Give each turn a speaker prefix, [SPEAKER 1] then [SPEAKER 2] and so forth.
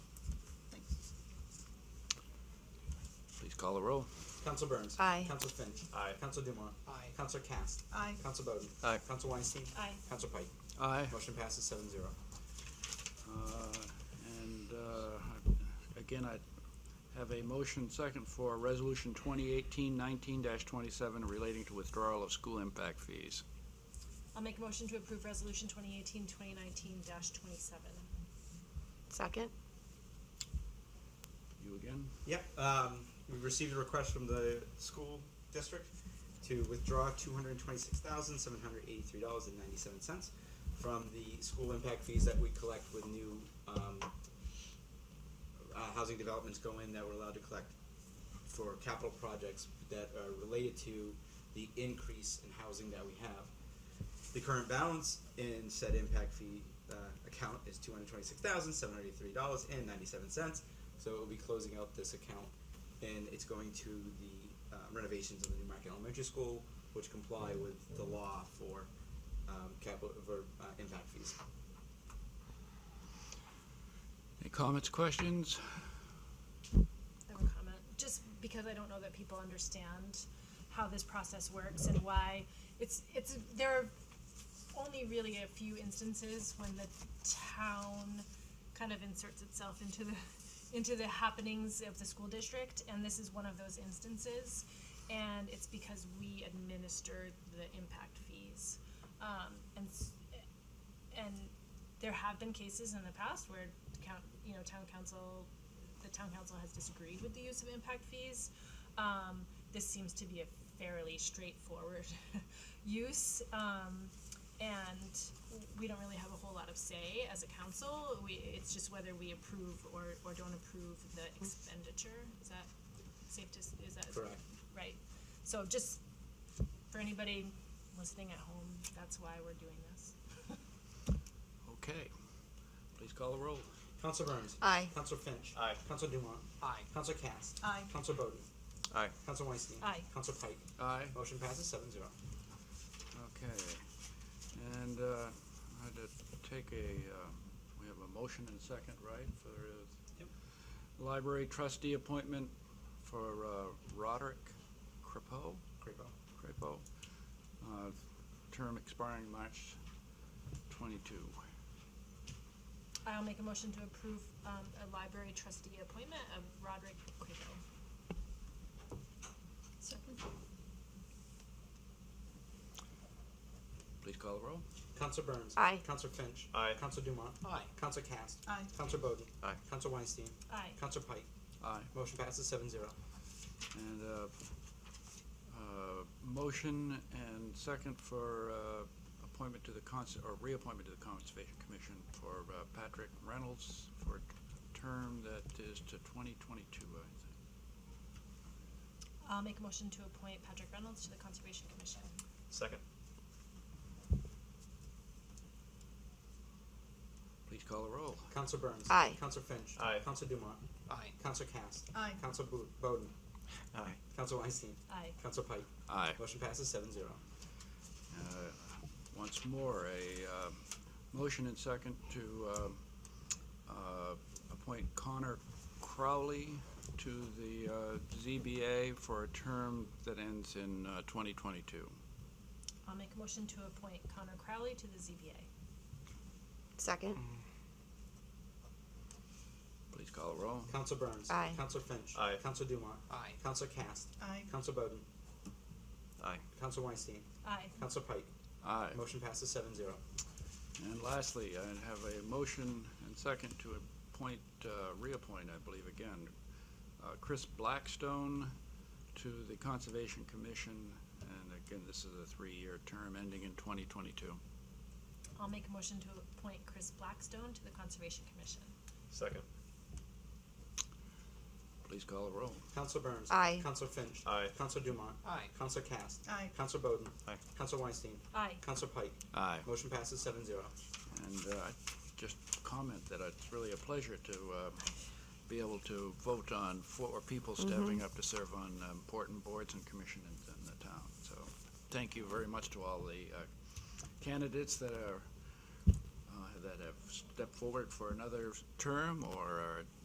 [SPEAKER 1] Call the roll.
[SPEAKER 2] Council Burns.
[SPEAKER 3] Aye.
[SPEAKER 2] Council Finch.
[SPEAKER 4] Aye.
[SPEAKER 2] Council Dumont.
[SPEAKER 5] Aye.
[SPEAKER 2] Council Cast.
[SPEAKER 5] Aye.
[SPEAKER 2] Council Bowden.
[SPEAKER 1] Aye.
[SPEAKER 2] Council Weinstein.
[SPEAKER 3] Aye.
[SPEAKER 2] Council Pike.
[SPEAKER 4] Aye.
[SPEAKER 2] Motion passes seven zero.
[SPEAKER 4] Uh, And uh, I- again, I have a motion second for Resolution 2018-19-27 relating to withdrawal of school impact fees.
[SPEAKER 6] I'll make a motion to approve resolution 2018-2019 twenty-seven.
[SPEAKER 3] Second?
[SPEAKER 4] You again?
[SPEAKER 2] Yep, um, we received a request from the school district to withdraw two hundred and twenty-six thousand, seven hundred eighty-three dollars and ninety-seven cents from the school impact fees that we collect with new, um, uh, housing developments go in that we're allowed to collect for capital projects that are related to the increase in housing that we have. The current balance in said impact fee uh, account is two hundred twenty-six thousand seven hundred eighty-three dollars and ninety-seven cents. So it will be closing out this account, and it's going to the uh, renovations of the Newmarket Elementary School, which comply with the law for um, capital for uh, impact fees.
[SPEAKER 4] Any comments, questions?
[SPEAKER 6] I have a comment, just because I don't know that people understand how this process works and why it's, it's, there are only really a few instances when the town kind of inserts itself into the, into the happenings of the school district, and this is one of those instances. And it's because we administer the impact fees. Um, and, s- and there have been cases in the past where count, you know, town council, the town council has disagreed with the use of impact fees. Um, this seems to be a fairly straightforward use, um, and we don't really have a whole lot of say as a council. We, it's just whether we approve or, or don't approve the expenditure. Is that safe to, s- is that?
[SPEAKER 2] Correct.
[SPEAKER 6] Right. So just for anybody listening at home, that's why we're doing this.
[SPEAKER 4] Okay. Please call the roll.
[SPEAKER 2] Council Burns.
[SPEAKER 3] Aye.
[SPEAKER 2] Council Finch.
[SPEAKER 1] Aye.
[SPEAKER 2] Council Dumont.
[SPEAKER 5] Aye.
[SPEAKER 2] Council Cast.
[SPEAKER 5] Aye.
[SPEAKER 2] Council Bowden.
[SPEAKER 1] Aye.
[SPEAKER 2] Council Weinstein.
[SPEAKER 6] Aye.
[SPEAKER 2] Council Pike.
[SPEAKER 4] Aye.
[SPEAKER 2] Motion passes seven zero.
[SPEAKER 4] Okay. And uh, I had to take a, uh, we have a motion and second, right, for uh,
[SPEAKER 2] Yep.
[SPEAKER 4] library trustee appointment for uh, Roderick Crepeau?
[SPEAKER 2] Crapo.
[SPEAKER 4] Crapo, uh, term expiring March twenty-two.
[SPEAKER 6] I'll make a motion to approve um, a library trustee appointment of Roderick Quato.
[SPEAKER 3] Second.
[SPEAKER 4] Please call the roll.
[SPEAKER 2] Council Burns.
[SPEAKER 3] Aye.
[SPEAKER 2] Council Finch.
[SPEAKER 1] Aye.
[SPEAKER 2] Council Dumont.
[SPEAKER 5] Aye.
[SPEAKER 2] Council Cast.
[SPEAKER 5] Aye.
[SPEAKER 2] Council Bowden.
[SPEAKER 1] Aye.
[SPEAKER 2] Council Weinstein.
[SPEAKER 6] Aye.
[SPEAKER 2] Council Pike.
[SPEAKER 4] Aye.
[SPEAKER 2] Motion passes seven zero.
[SPEAKER 4] And, uh, uh, motion and second for, uh, appointment to the cons, or reappointment to the Conservation Commission for uh, Patrick Reynolds for a term that is to twenty twenty-two, I think.
[SPEAKER 6] I'll make a motion to appoint Patrick Reynolds to the Conservation Commission.
[SPEAKER 1] Second.
[SPEAKER 4] Please call the roll.
[SPEAKER 2] Council Burns.
[SPEAKER 3] Aye.
[SPEAKER 2] Council Finch.
[SPEAKER 1] Aye.
[SPEAKER 2] Council Dumont.
[SPEAKER 5] Aye.
[SPEAKER 2] Council Cast.
[SPEAKER 5] Aye.
[SPEAKER 2] Council Bo- Bowden.
[SPEAKER 1] Aye.
[SPEAKER 2] Council Weinstein.
[SPEAKER 6] Aye.
[SPEAKER 2] Council Pike.
[SPEAKER 4] Aye.
[SPEAKER 2] Motion passes seven zero.
[SPEAKER 4] Uh, Once more, a um, motion and second to um, uh, appoint Connor Crowley to the uh, ZBA for a term that ends in uh, 2022.
[SPEAKER 6] I'll make a motion to appoint Connor Crowley to the ZBA.
[SPEAKER 3] Second?
[SPEAKER 4] Please call the roll.
[SPEAKER 2] Council Burns.
[SPEAKER 3] Aye.
[SPEAKER 2] Council Finch.
[SPEAKER 1] Aye.
[SPEAKER 2] Council Dumont.
[SPEAKER 5] Aye.
[SPEAKER 2] Council Cast.
[SPEAKER 5] Aye.
[SPEAKER 2] Council Bowden.
[SPEAKER 1] Aye.
[SPEAKER 2] Council Weinstein.
[SPEAKER 6] Aye.
[SPEAKER 2] Council Pike.
[SPEAKER 4] Aye.
[SPEAKER 2] Motion passes seven zero.
[SPEAKER 4] And lastly, I have a motion and second to appoint, uh, reappoint, I believe again, uh, Chris Blackstone to the Conservation Commission. And again, this is a three-year term ending in 2022.
[SPEAKER 6] I'll make a motion to appoint Chris Blackstone to the Conservation Commission.
[SPEAKER 1] Second.
[SPEAKER 4] Please call the roll.
[SPEAKER 2] Council Burns.
[SPEAKER 3] Aye.
[SPEAKER 2] Council Finch.
[SPEAKER 1] Aye.
[SPEAKER 2] Council Dumont.
[SPEAKER 5] Aye.
[SPEAKER 2] Council Cast.
[SPEAKER 5] Aye.
[SPEAKER 2] Council Bowden.
[SPEAKER 1] Aye.
[SPEAKER 2] Council Weinstein.
[SPEAKER 6] Aye.
[SPEAKER 2] Council Pike.
[SPEAKER 4] Aye.
[SPEAKER 2] Motion passes seven zero.
[SPEAKER 4] And uh, I just comment that it's really a pleasure to uh, be able to vote on four people stepping up to serve on uh, important boards and commissions in in the town. So thank you very much to all the uh, candidates that are, uh, that have stepped forward for another term or are